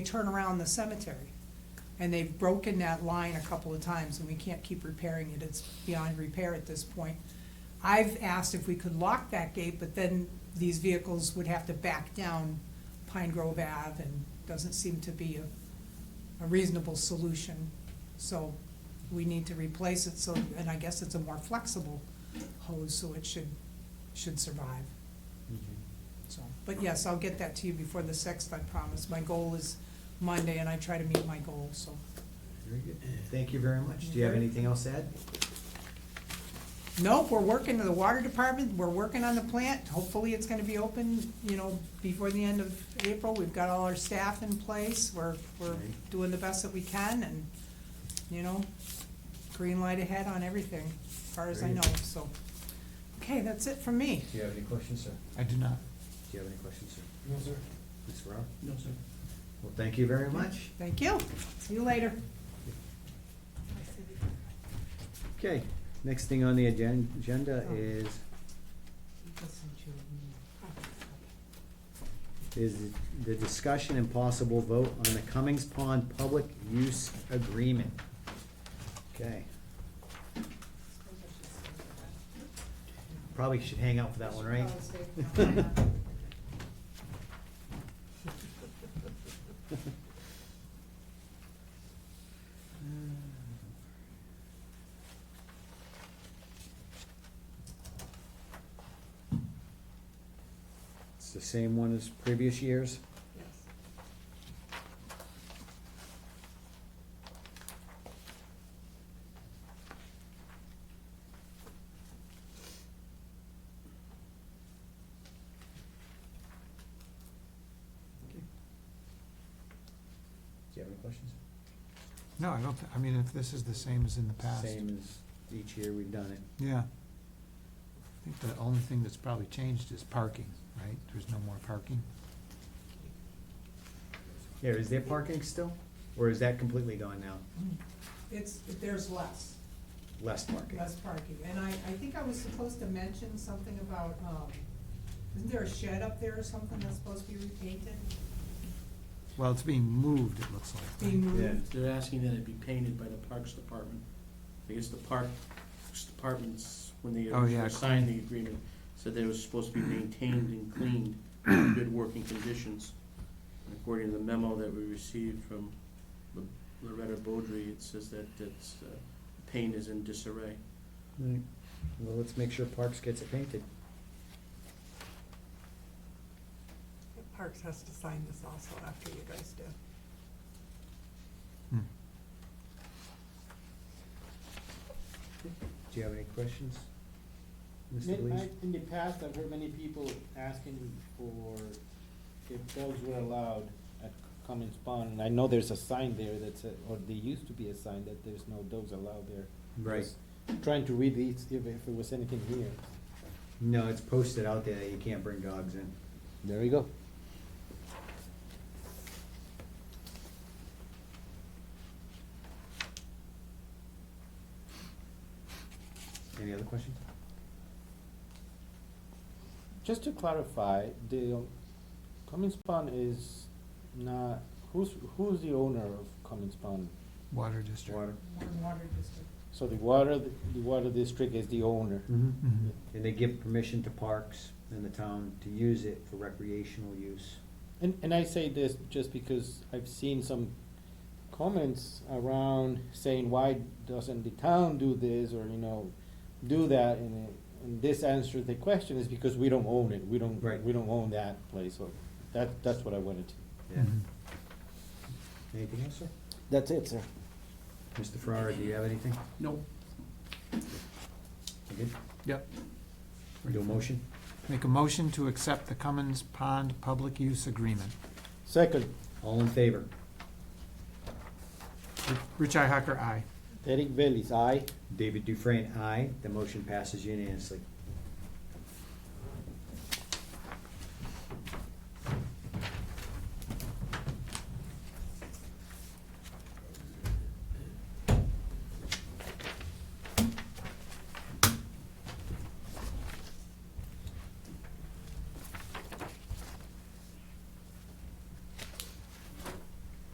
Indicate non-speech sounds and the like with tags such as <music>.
turn around the cemetery. And they've broken that line a couple of times, and we can't keep repairing it, it's beyond repair at this point. I've asked if we could lock that gate, but then these vehicles would have to back down Pine Grove Ave, and doesn't seem to be a, a reasonable solution. So we need to replace it, so, and I guess it's a more flexible hose, so it should, should survive. So, but yes, I'll get that to you before the sixth, I promise. My goal is Monday, and I try to meet my goal, so. Very good. Thank you very much. Do you have anything else to add? Nope, we're working to the water department, we're working on the plant. Hopefully, it's gonna be open, you know, before the end of April. We've got all our staff in place, we're, we're Right. doing the best that we can, and, you know, green light ahead on everything, as far as I Great. know, so. Okay, that's it from me. Do you have any questions, sir? I do not. Do you have any questions, sir? No, sir. Ms. Rowe? No, sir. Well, thank you very much. Thank you, see you later. Okay, next thing on the agen- agenda is, is the discussion and possible vote on the Cummings Pond Public Use Agreement. Okay, probably should hang out for that one, right? <laughs> It's the same one as previous years? Do you have any questions? No, I don't, thi- I mean, if this is the same as in the past. Same as each year we've done it. Yeah. I think the only thing that's probably changed is parking, right? There's no more parking. Yeah, is there parking still, or is that completely gone now? It's, there's less. Less parking? Less parking, and I, I think I was supposed to mention something about, um, isn't there a shed up there or something that's supposed to be repainted? Well, it's being moved, it looks like. right? Being moved? They're asking that it be painted by the Parks Department. I guess the Parks Departments, when they Oh, yeah, originally signed the agreement, said that it was supposed to be maintained and <coughs> cleaned in good working conditions. And According to the memo that we received from Lo- Loretta Beaudry, it says that it's, uh, paint is in disarray. Right. Well, let's make sure Parks gets it painted. Parks has to sign this also after you guys do. Hmm. Do you have any questions? Mr. In, Belize? I- in the past, I've heard many people asking for if dogs were allowed at Cummins Pond. And I know there's a sign there that said, or there used to be a sign that there's no dogs allowed there. Right, Just Trying to read these, if, if it was anything here. no, it's posted out there that you can't bring dogs in. There you go. Any other questions? Just to clarify, the um, Cummins Pond is not, who's, who's the owner of Cummins Pond? Water district. Water? Water district. So the water, the water district is the owner. Mm-hmm. Mhm. And they give permission to Parks and the town to use it for recreational use. And, and I say this just because I've seen some comments around saying, why doesn't the town do this or, you know, do that? And, it- and this answers the question is because we don't own it. We don't, Right. we don't own that place. So that, that's what I wanted to. Yeah. Mhm. Anything else, sir? That's it, sir. Mr. Ferrara, do you have anything? No. You Yep. good? Do a motion? Make a motion to accept the Cummins Pond Public Use Agreement. Second, All in favor? Rich Ihacker, aye. Derek Bailey's aye. David Dufresne, aye. The motion passes unanimously.